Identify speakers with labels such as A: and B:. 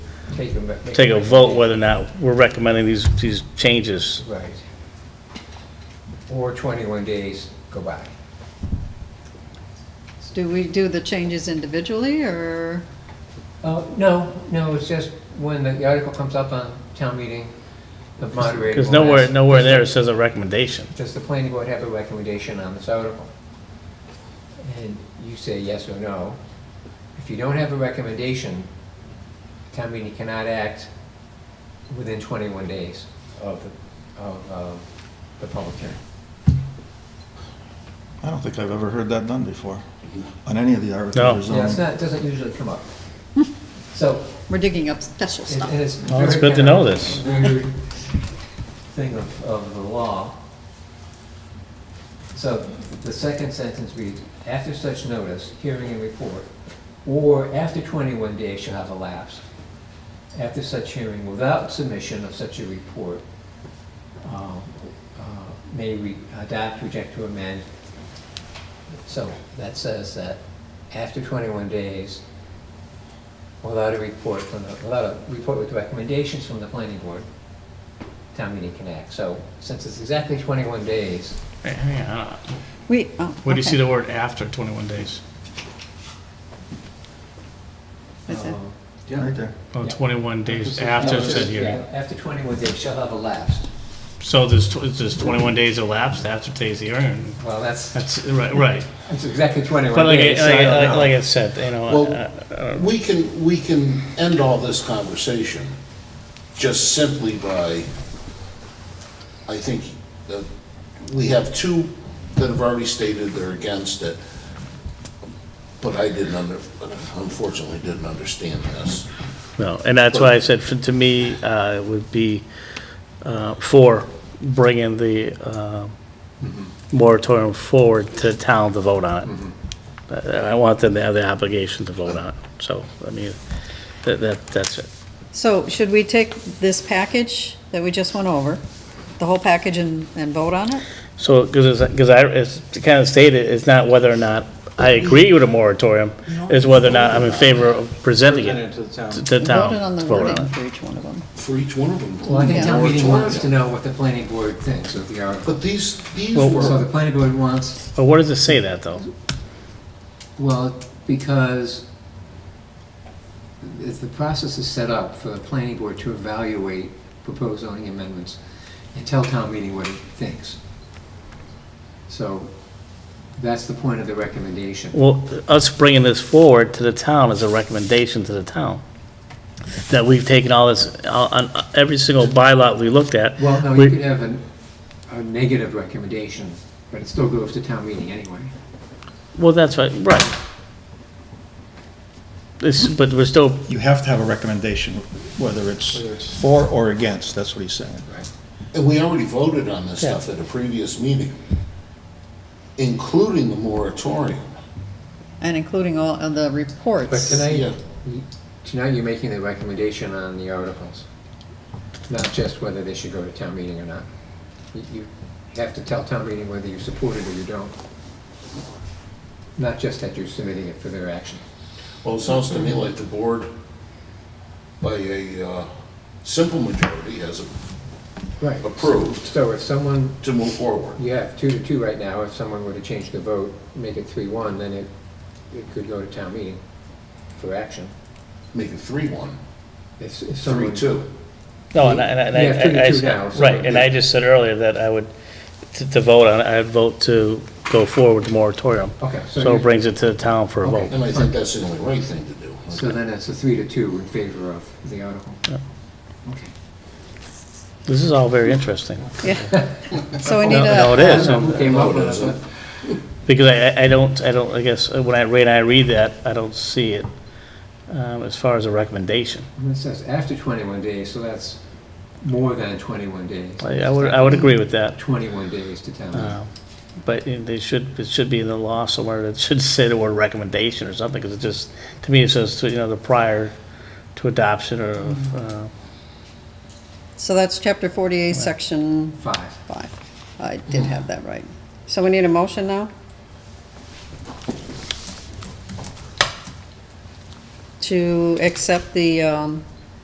A: take a. rec-
B: take a vote whether or not we're recommending these, these changes.
A: Right. Or 21 days go by.
C: Do we do the changes individually, or,
A: Uh, no, no, it's just when the article comes up on town meeting, the moderator.
B: Because
A: will
B: nowhere,
A: ask,
B: nowhere there it says a recommendation.
A: Does the planning board have a recommendation on this article? And you say yes or no. If you don't have a recommendation, town meeting cannot act within 21 days of, the- of, uh the public hearing.
D: I don't think I've ever heard that done before, on any of the
B: No.
D: articles.
A: Yeah, it's not, it doesn't usually come up. So,
C: we're digging up special
A: And-
C: stuff?
A: and it's
B: Well, it's
A: very
B: good to know
A: kind of
B: this.
A: weird Thing of, of the law. So the second sentence reads, after such notice, hearing and report, or after twenty-one days shall have elapsed, after such hearing without submission of such a report, uh, uh, may re- adopt, reject, or amend. So that says that after twenty-one days, without a report from the, without a report with recommendations from the planning board, town meeting can act. So since it's exactly 21 days,
E: Hey, hang on.
C: We, oh,
E: Where do you see
C: okay.
E: the word after 21 days?
C: That's it.
A: um,
D: Right there.
E: Oh,
A: Yeah.
E: 21 days
A: no,
E: after
A: it's
E: it said
A: just, yeah,
E: here.
A: After 21 days shall have elapsed.
E: So there's, tw- there's 21 days elapsed after today's hearing.
A: Well, that's,
E: That's, right, right.
A: it's exactly 21
B: But like, I-
A: days. so I
B: like, I-
A: don't
B: like,
A: know.
B: like I said, you know,
F: Well-
B: uh,
F: We can, we can end all this conversation just simply by, I think, that we have two that have already stated they're against it, but I didn't under, unfortunately didn't understand this.
B: no, and that's why I said, for- to me, uh, it would be, uh, for bringing the, uh, moratorium forward to town to vote on it. I I want them to have the obligation to vote on it, so, I mean, that, that, that's it.
C: So should we take this package that we just went over, the whole package, and, and vote on it?
B: So, because, because I, it's kind of stated, it's not whether or not I agree with a moratorium, it's whether or not I'm in favor of presenting it to the town.
C: Voted on the
B: to vote
C: wording
B: on it.
C: for each one of them.
F: For each one of them.
A: Well, I think
C: Yeah.
A: town meeting wants to know what the planning board thinks of the article.
F: But these, these
B: Well-
A: So
F: were,
A: the planning board wants,
B: But what does it say that, though?
A: well, because if the process is set up for the planning board to evaluate proposed zoning amendments and tell town meeting what it thinks. So that's the point of the recommendation.
B: Well, us bringing this forward to the town is a recommendation to the town, that we've taken all this, on, on every single bylaw we looked at.
A: Well, no, you
B: we-
A: could have an- a negative recommendation, but it still goes to town meeting anyway.
B: Well, that's right, right. This, but we're still,
D: You have to have a recommendation, whether it's for or against, that's what he's saying.
F: and we already voted on this stuff at a previous meeting, including the moratorium.
C: And including all of the
A: But
C: reports.
A: tonight,
F: Yeah.
A: you- tonight you're making the recommendation on the articles, not just whether they should go to town meeting or not. You- You have to tell town meeting whether you support it or you don't. Not just that you're submitting it for their action.
F: Well, it sounds to me like the board, by a uh, simple majority, has
A: Right.
F: approved
A: So if someone,
F: to move forward.
A: you have two to two right now, if someone were to change the vote, make it three one, then it, it could go to town meeting for action.
F: Make it three-one,
A: If if someone.
F: three-two.
B: no, and I, and I-
A: Yeah,
B: and I- I,
A: 32 now,
B: said-
A: so-
B: right, and I just said earlier that I would, to, to vote on it, I'd vote to go forward with the moratorium.
A: Okay, so
B: So
A: you-
B: it brings it to the town for a
A: Okay.
B: vote.
F: And I think that's the only right thing to do.
A: So then it's a three to two in favor of the article. Okay.
B: This is all very interesting,
C: Yeah. So we need
B: No, no, it
C: a,
B: is, um,
A: Who came up with it?
B: because I, I don't, I don't, I guess, uh, when I read, I read that, I don't see it um, as far as a recommendation.
A: It says after 21 days, so that's more than 21 days.
B: I I would, I would agree with that,
A: 21 days to town meeting.
B: Um, but it- they should, it should be in the law somewhere, that should say the word recommendation or something, because it just, to me, it says, to, you know, the prior to adoption or, uh,
C: so that's chapter forty-eight, section
A: Five.
C: five. I did have that right. So we need a motion now? To accept the, um,